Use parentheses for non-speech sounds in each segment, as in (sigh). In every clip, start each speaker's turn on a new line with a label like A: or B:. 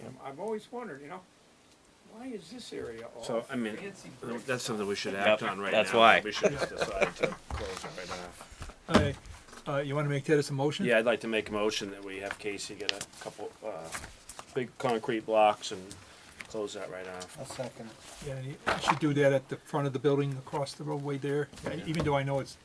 A: them. I've always wondered, you know, why is this area all?
B: So, uh, I mean,
A: fancy brick?
B: that's something we should act
C: Yep,
B: on right now.
C: that's why.
B: We should
C: (laughs)
B: just decide to close it right off.
D: I, uh, you wanna make that as a motion?
B: Yeah, I'd like to make a motion that we have Casey get a couple, uh, big concrete blocks and close that right off.
E: A second.
D: Yeah, and you should do that at the front of the building across the roadway there, even though I know it's,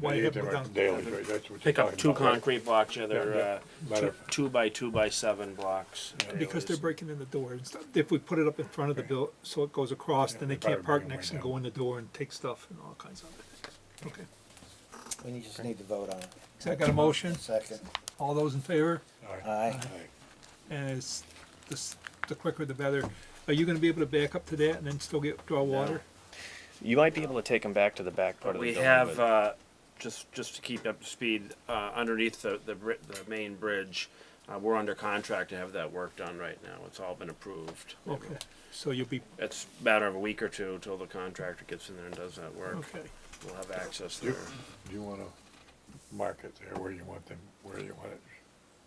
D: why
F: You
D: you
F: hit
D: haven't
F: them at
D: done.
F: the daily rate, that's what you're
B: Pick up
F: talking
B: two
F: about. right?
B: concrete blocks, yeah,
F: Yeah,
B: they're, uh,
F: Matter
B: two,
F: of-
B: two by two by seven blocks.
D: Because they're
B: Anyways.
D: breaking in the door and stuff, if we put it up in front of the bill, so it goes across, then they can't
F: Better
D: park
F: bring 'em
D: next
F: right
D: and
F: down.
D: go in the door and take stuff and all kinds of it. Okay,
E: We need- just need to vote on it.
D: so I got a motion,
E: A second.
D: all those in favor,
F: Aye.
E: Aye. (laughs)
D: and it's, this, the quicker the better. Are you gonna be able to back up to that and then still get, draw water?
C: You might be able to take them back to the back part of the
B: We
C: building.
B: have,
C: but-
B: uh, just, just to keep up to speed, uh, underneath the, the bri- the main bridge, uh, we're under contract to have that work done right now. It's all been approved.
D: Okay, so you'll be,
B: It's a matter of a week or two till the contractor gets in there and does that work.
D: okay,
B: We'll have access
F: You,
B: there.
F: you wanna mark it there where you want them, where you want it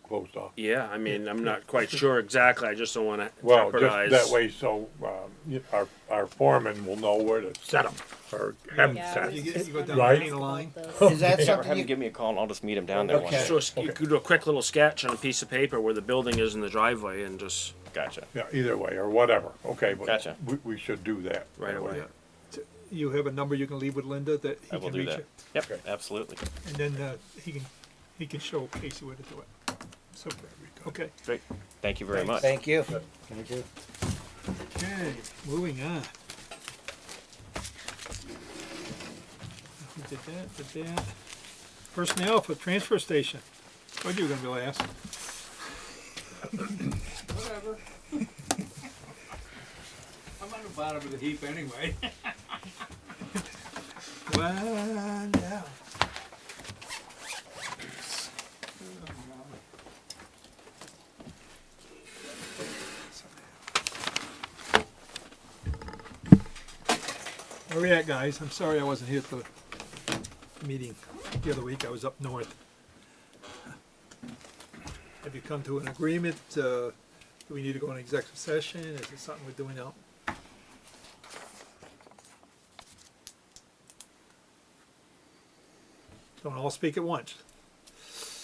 F: closed off?
B: Yeah, I mean, I'm not quite sure exactly. I just don't wanna
F: Well,
B: jeopardize.
F: just that way, so, um, you- our, our foreman will know where to set them, or have
G: Yeah, I
F: them
G: was
D: You
F: set.
D: get-
G: just
D: you go down
G: wondering
F: the
G: about
D: line.
G: those.
E: Is that
C: Or have
E: something
C: him
E: you,
C: give me a call and I'll just meet him down there. one
E: Okay.
C: day.
B: So you could do a quick little sketch on a piece of paper where the building is and the driveway and just
C: Gotcha.
F: Yeah, either way, or whatever, okay, but
C: Gotcha.
F: we, we should do that.
B: right away.
D: you have a number you can leave with Linda that
C: I
D: he
C: will
D: can
C: do
D: reach
C: that.
D: it?
C: Yep,
F: Okay.
C: absolutely.
D: And then, uh, he can, he can show Casey where to do it. So, okay.
C: Great. Thank you very much.
E: thank you. Thank you.
D: Okay, moving on. Who did that, did that? Personnel for transfer station. What you were gonna be last?
A: Whatever. (laughs) I'm on the bottom of the heap (laughs) anyway.
D: Well, now. Where we at, guys? I'm sorry I wasn't here at the meeting the other week. I was up north. Have you come to an agreement? Uh, do we need to go in executive session? Is it something we're doing out? Don't all speak at once.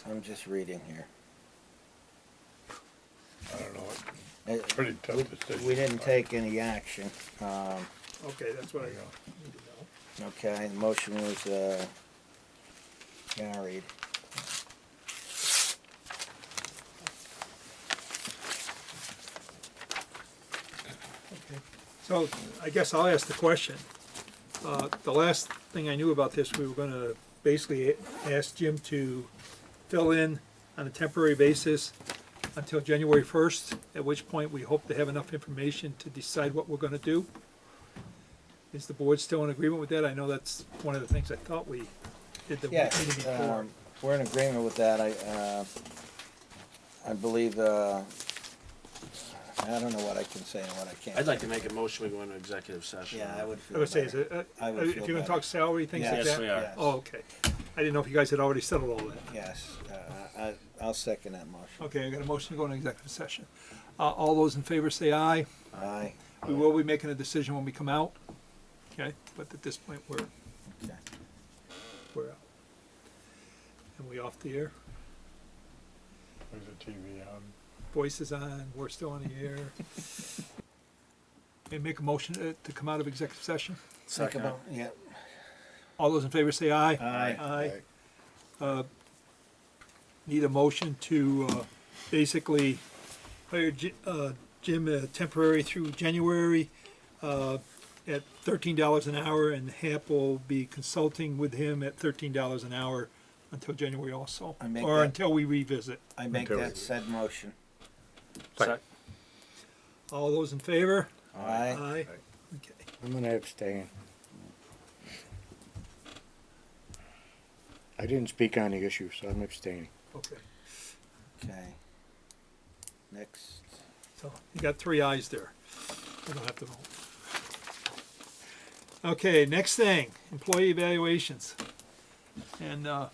E: I'm just reading here.
F: I don't know, it's
E: Uh,
F: a pretty tough
E: We
F: decision.
E: we didn't take any action. Um,
D: Okay, that's what I got.
E: okay, the motion was, uh, carried.
D: Okay. So I guess I'll ask the question. Uh, The last thing I knew about this, we were gonna basically ask Jim to fill in on a temporary basis until January first, at which point we hope to have enough information to decide what we're gonna do. Is the board still in agreement with that? I know that's one of the things I thought we did the
E: Yeah,
D: meeting before.
E: um, we're in agreement with that, I, uh, I believe, uh, I don't know what I can say and what I can't.
B: I'd like to make a motion, we go into executive session.
E: Yeah, I would
D: I
E: feel
D: would say, is
E: better.
D: it, uh,
E: I would
D: if
E: feel
D: you're gonna
E: better.
D: talk salary, things like
E: Yes.
D: that?
B: Yes, we are.
E: Yes.
D: Oh, okay. I didn't know if you guys had already settled all that.
E: Yes, uh, I, I'll second that motion.
D: Okay, I got a motion to go into executive session. Uh, all those in favor say aye.
E: Aye.
D: We will be making a decision when we come out. Okay, but at this point, we're,
E: Okay.
D: we're out. And we off the air,
F: There's a TV on.
D: voice is on, we're still on the air. And make a motion to, to come out of executive session.
E: Think about- Yeah,
D: All those in favor say aye.
E: Aye.
D: Aye. Uh, Need a motion to, uh, basically hire Ji- uh, Jim uh, temporary through January, uh, at thirteen dollars an hour, and Hap will be consulting with him at thirteen dollars an hour until January also,
E: I make
D: or
E: that-
D: until we revisit.
E: I make
F: Until-
E: that said motion.
B: Sec-
D: All those in favor?
E: Aye.
D: Aye. Okay.
H: I'm gonna abstain. I didn't speak on the issue, so I'm abstaining.
D: Okay,
E: Okay. Next.
D: so you got three ayes there. We don't have to vote. Okay, next thing, employee evaluations. And, uh,